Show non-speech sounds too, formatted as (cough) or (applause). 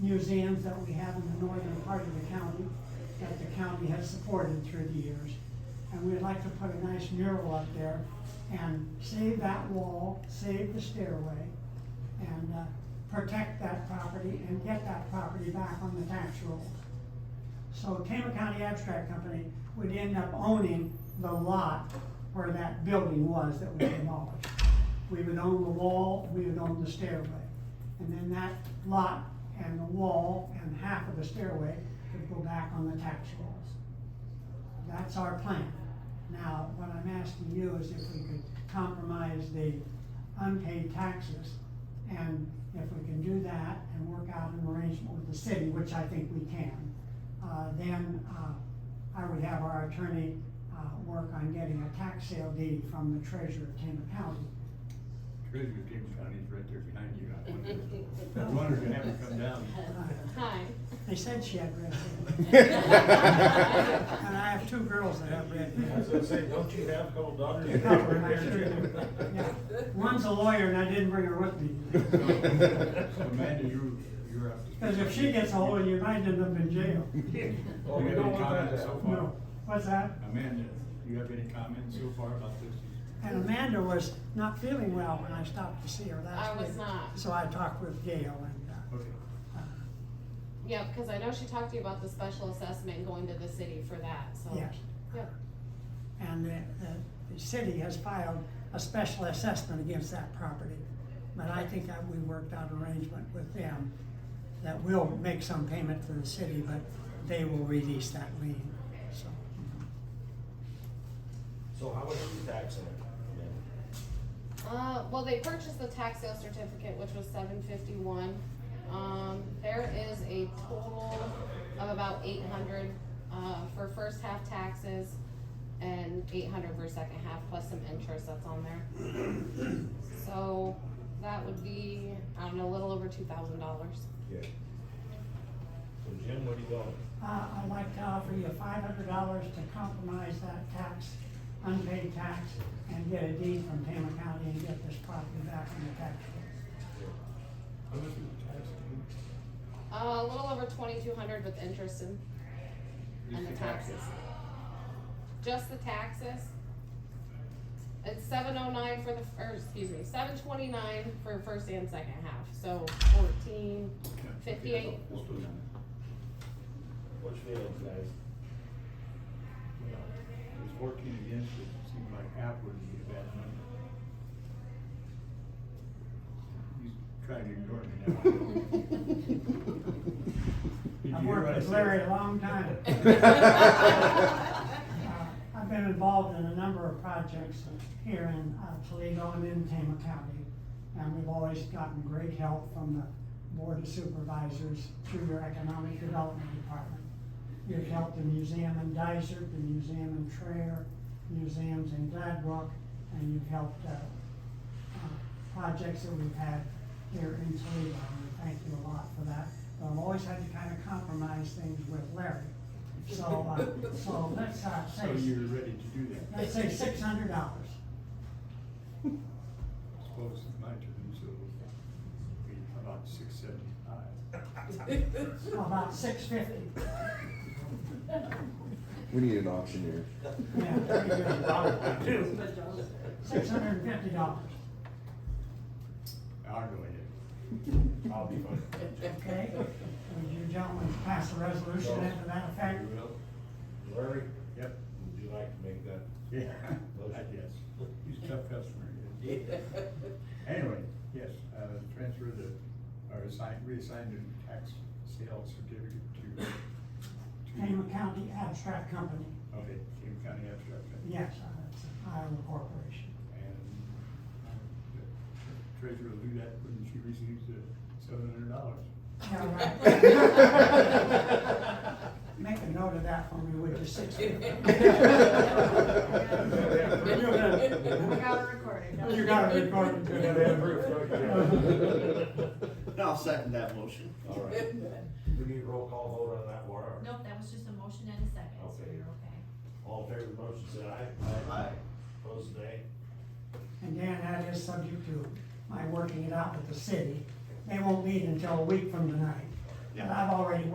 museums that we have in the northern part of the county, that the county has supported through the years. And we'd like to put a nice mural up there and save that wall, save the stairway, and uh, protect that property and get that property back on the tax rolls. So Tama County Abstract Company would end up owning the lot where that building was that we demolished. We would own the wall, we would own the stairway. And then that lot and the wall and half of the stairway would go back on the tax rolls. That's our plan. Now, what I'm asking you is if we could compromise the unpaid taxes, and if we can do that and work out an arrangement with the city, which I think we can, uh, then, uh, I would have our attorney, uh, work on getting a tax sale deed from the treasurer of Tama County. Treasure of James County is right there behind you. I wondered- I wonder if you have to come down. Hi. They said she had red hair. And I have two girls that have red hair. I was gonna say, don't you have a couple (laughs) daughters? (laughs) Yeah. One's a lawyer and I didn't bring her with me. So, Amanda, you, you're up to. speak. Because if she gets a hold of you, I end up in jail. Oh, we You have don't any want comments that. so far? No, what's that? Amanda, do you have any comments so far about this? And Amanda was not feeling well when I stopped to see her last I week. was not. So I talked with Gail and, uh, Okay. Yeah, because I know she talked to you about the special assessment and going to the city for that, so. Yes. Yep. and the, the, the city has filed a special assessment against that property. But I think that we worked out an arrangement with them that will make some payment to the city, but they will release that lien, so. So how much are you taxing it? Uh, well, they purchased the tax sale certificate, which was seven fifty-one. Um, there is a total of about eight hundred, uh, for first half taxes and eight hundred for second half, plus some interest that's on there. So that would be, I don't know, a little over two thousand dollars. Yeah. So Jim, what do you going? Uh, I'd like to offer you five hundred dollars to compromise that tax, unpaid tax, and get a deed from Tama County and get this property back on the tax rolls. How much was the tax again? Uh, a little over twenty-two hundred with interest and, and the Just taxes. Just the taxes. It's seven oh nine for the, or excuse me, seven twenty-nine for first and second half, so fourteen Yeah. fifty-eight. Let's do that. What's your feelings, guys? It was fourteen against, it seemed like half would be a bad number. He's trying to ignore me now. (laughs) Did you I've hear what worked I with said? Larry a long time. (laughs) Uh, I've been involved in a number of projects here in uh, Toledo and in Tama County. And we've always gotten great help from the Board of Supervisors through your Economic Development Department. You've helped the museum in Dysart, the museum in Traer, museums in Gladbrook, and you've helped, uh, uh, projects that we've had here in Toledo, and we thank you a lot for that. But I've always had to kind of compromise things with Larry, so, uh, so let's, uh, (laughs) So say, you're ready to do that? let's say six hundred dollars. I Suppose it's my turn, so it'll be about six seventy-five. About six fifty. We need an auctioneer. Yeah. Six hundred and fifty dollars, I'll go ahead. I'll be fine. okay? Would you gentlemen pass a resolution after that You effect? will? Larry, Yep. would you like to make that? Yeah, I guess. He's a tough customer. he is. Anyway, yes, uh, transfer the, or assign, reassign the tax sale certificate to. to- Tama County Abstract Company, Okay, Tama County Abstract. Company. yes, uh, it's Iowa Corporation. And uh, the treasurer will do that when she receives the seven hundred dollars. Yeah, (laughs) right. Make a note of that for me, would you, six fifty? I (laughs) You got got it recorded. it recorded. You gotta have proof, don't you? I'll second that motion. All right. We need a roll call vote on that, Laura. Nope, that was just a motion and a second, so Okay. you're okay. All in favor of the motion, say aye. Aye. Opposed, nay? And Dan, that is subject to my working it out with the city. They won't meet until a week from tonight. Yeah. already